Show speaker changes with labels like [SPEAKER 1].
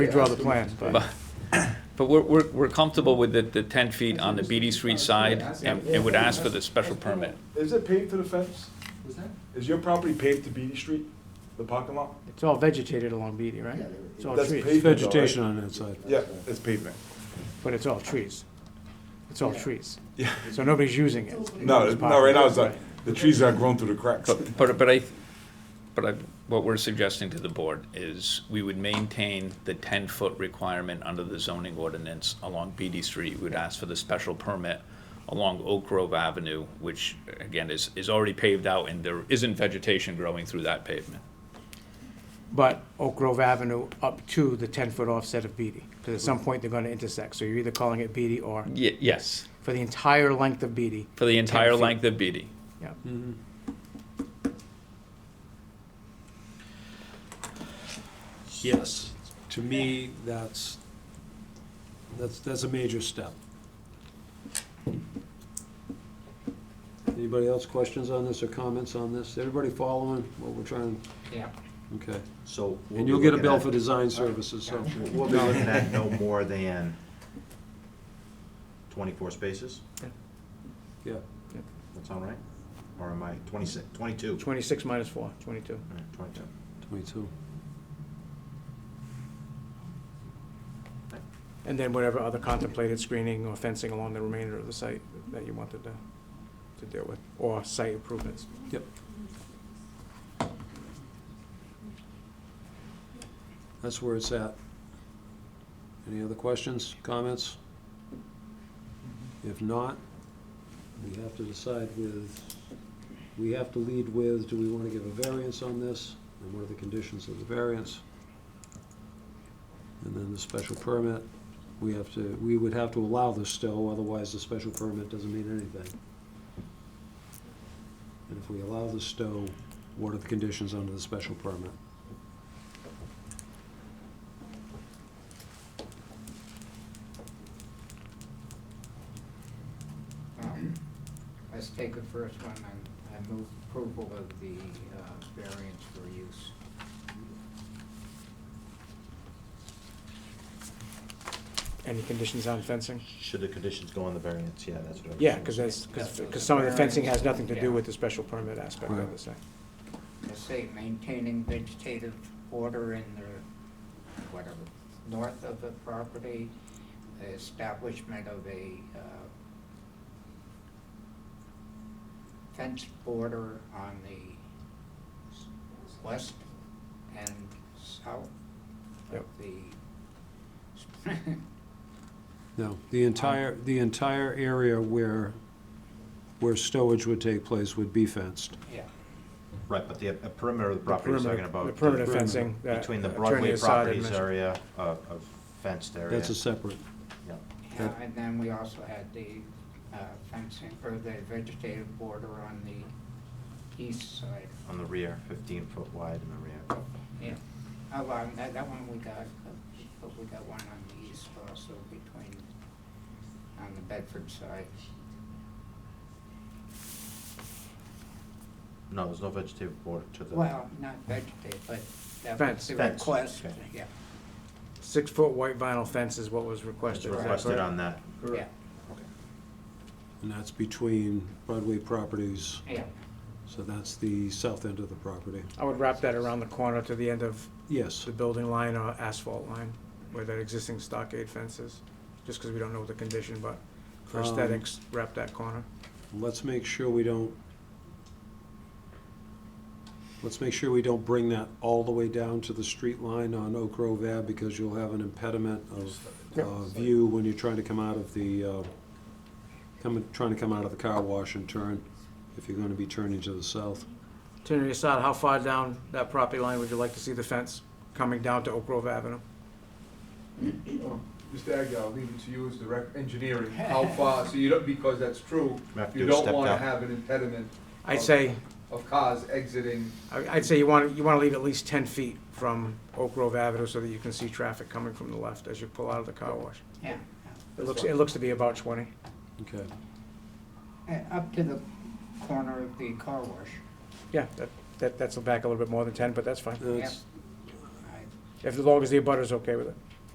[SPEAKER 1] Redraw the plan, but
[SPEAKER 2] But we're, we're, we're comfortable with the, the ten feet on the BD Street side, and it would ask for the special permit.
[SPEAKER 3] Is it paved to the fence?
[SPEAKER 4] Was that?
[SPEAKER 3] Is your property paved to Beatty Street, the parking lot?
[SPEAKER 1] it's all vegetated along Beatty, right?
[SPEAKER 4] Yeah,
[SPEAKER 1] It's all
[SPEAKER 3] That's
[SPEAKER 1] Oh, trees,
[SPEAKER 3] paved.
[SPEAKER 5] Vegetation on that side.
[SPEAKER 3] Yeah, it's pavement.
[SPEAKER 1] but it's all trees. It's all trees.
[SPEAKER 3] Yeah.
[SPEAKER 1] So nobody's using it.
[SPEAKER 3] No,
[SPEAKER 1] It's
[SPEAKER 3] no, right now it's
[SPEAKER 1] parking.
[SPEAKER 3] like, the trees are grown through the cracks.
[SPEAKER 2] But, but, but I, but I, what we're suggesting to the board is we would maintain the ten-foot requirement under the zoning ordinance along BD Street. We'd ask for the special permit along Oak Grove Avenue, which, again, is, is already paved out, and there isn't vegetation growing through that pavement.
[SPEAKER 1] But Oak Grove Avenue up to the ten-foot offset of Beatty, because at some point they're gonna intersect, so you're either calling it Beatty or,
[SPEAKER 2] Ye- yes,
[SPEAKER 1] for the entire length of Beatty,
[SPEAKER 2] for the entire
[SPEAKER 1] 10 feet.
[SPEAKER 2] length of BD.
[SPEAKER 1] yeah.
[SPEAKER 5] Yes, to me, that's, that's, that's a major step. Anybody else questions on this or comments on this? Everybody following what we're trying,
[SPEAKER 4] Yeah.
[SPEAKER 5] okay.
[SPEAKER 6] So. we'll
[SPEAKER 5] And
[SPEAKER 6] be
[SPEAKER 5] you'll get a
[SPEAKER 6] looking
[SPEAKER 5] bill
[SPEAKER 6] at-
[SPEAKER 5] for design services, so.
[SPEAKER 6] We'll be looking at no more than twenty-four spaces,
[SPEAKER 5] Yeah,
[SPEAKER 6] that sound right? Or am I twenty-six, twenty-two?
[SPEAKER 1] Twenty-six minus four, twenty-two.
[SPEAKER 6] Alright, Twenty-two.
[SPEAKER 5] twenty-two.
[SPEAKER 1] And then whatever other contemplated screening or fencing along the remainder of the site that you wanted to, to deal with, or site improvements.
[SPEAKER 5] Yep. That's where it's at. Any other questions, comments? If not, we have to decide with, we have to lead with, do we want to give a variance on this? And what are the conditions of the variance? And then the special permit, we have to, we would have to allow this still, otherwise the special permit doesn't mean anything. And if we allow the stow, what are the conditions under the special permit?
[SPEAKER 4] Um, Let's take the first one, and I move approval of the uh, variance for use.
[SPEAKER 1] Any conditions on fencing?
[SPEAKER 6] Should the conditions go on the variance? Yeah, that's what I was.
[SPEAKER 1] Yeah, because that's, because some of the fencing has nothing to do with the special permit aspect of
[SPEAKER 5] Right.
[SPEAKER 1] the site.
[SPEAKER 4] Let's say maintaining vegetative order in the, whatever, north of the property, the establishment of a uh, fence border on the west and south of
[SPEAKER 1] Yep.
[SPEAKER 4] the
[SPEAKER 5] No, the entire, the entire area where, where stowage would take place would be fenced.
[SPEAKER 4] Yeah,
[SPEAKER 6] Right, but the uh, perimeter of the property is
[SPEAKER 1] perimeter-
[SPEAKER 6] talking about.
[SPEAKER 1] The perimeter
[SPEAKER 6] the-
[SPEAKER 1] fencing. that
[SPEAKER 6] Between the
[SPEAKER 1] Attorney
[SPEAKER 6] Broadway
[SPEAKER 1] Assad had
[SPEAKER 6] properties
[SPEAKER 1] mentioned.
[SPEAKER 6] area, uh, a fenced area.
[SPEAKER 5] That's a separate,
[SPEAKER 6] Yeah.
[SPEAKER 4] Yeah, and then we also had the uh, fencing, or the vegetative border on the east side.
[SPEAKER 6] On the rear, fifteen foot wide in the rear.
[SPEAKER 4] Yeah, oh, well, that, that one we got, but we got one on the east also between, on the Bedford side.
[SPEAKER 6] No, there's no vegetative border to the.
[SPEAKER 4] Well, not vegetative, but that
[SPEAKER 1] Fence.
[SPEAKER 4] was the
[SPEAKER 6] Fence,
[SPEAKER 4] request,
[SPEAKER 6] okay.
[SPEAKER 4] yeah,
[SPEAKER 1] Six-foot white vinyl fence is what was
[SPEAKER 6] It's
[SPEAKER 1] requested. is that
[SPEAKER 6] requested
[SPEAKER 1] correct?
[SPEAKER 6] on that.
[SPEAKER 4] yeah,
[SPEAKER 5] and that's between Broadway properties,
[SPEAKER 4] yeah.
[SPEAKER 5] so that's the south end of the property.
[SPEAKER 1] I would wrap that around the corner to the end of
[SPEAKER 5] Yes,
[SPEAKER 1] the building line or asphalt line, where that existing stockade fence is, just because we don't know the condition, but for
[SPEAKER 5] Um,
[SPEAKER 1] aesthetics, wrap that corner.
[SPEAKER 5] let's make sure we don't, let's make sure we don't bring that all the way down to the street line on Oak Grove Ave, because you'll have an impediment of
[SPEAKER 1] Yep.
[SPEAKER 5] uh, view when you're trying to come out of the, uh, coming, trying to come out of the car wash and turn, if you're gonna be turning to the south.
[SPEAKER 1] Attorney Assad, how far down that property line would you like to see the fence coming down to Oak Grove Avenue?
[SPEAKER 7] Mr. Agia, I'll leave it to you as the rec- engineering, how far, so you don't, because that's true,
[SPEAKER 6] We have to
[SPEAKER 7] you
[SPEAKER 6] do a
[SPEAKER 7] don't
[SPEAKER 6] step
[SPEAKER 7] wanna
[SPEAKER 6] down.
[SPEAKER 7] have an impediment
[SPEAKER 1] I'd say,
[SPEAKER 7] of cars exiting.
[SPEAKER 1] I- I'd say you want, you want to leave at least ten feet from Oak Grove Avenue so that you can see traffic coming from the left as you pull out of the car wash.
[SPEAKER 4] Yeah,
[SPEAKER 1] It looks, it looks to be about twenty.
[SPEAKER 5] Okay,
[SPEAKER 4] and Uh, up to the corner of the car wash.
[SPEAKER 1] Yeah, that, that, that's back a little bit more than ten, but that's fine.
[SPEAKER 5] that's,
[SPEAKER 4] I-
[SPEAKER 1] If, as long as the abutter's okay with it.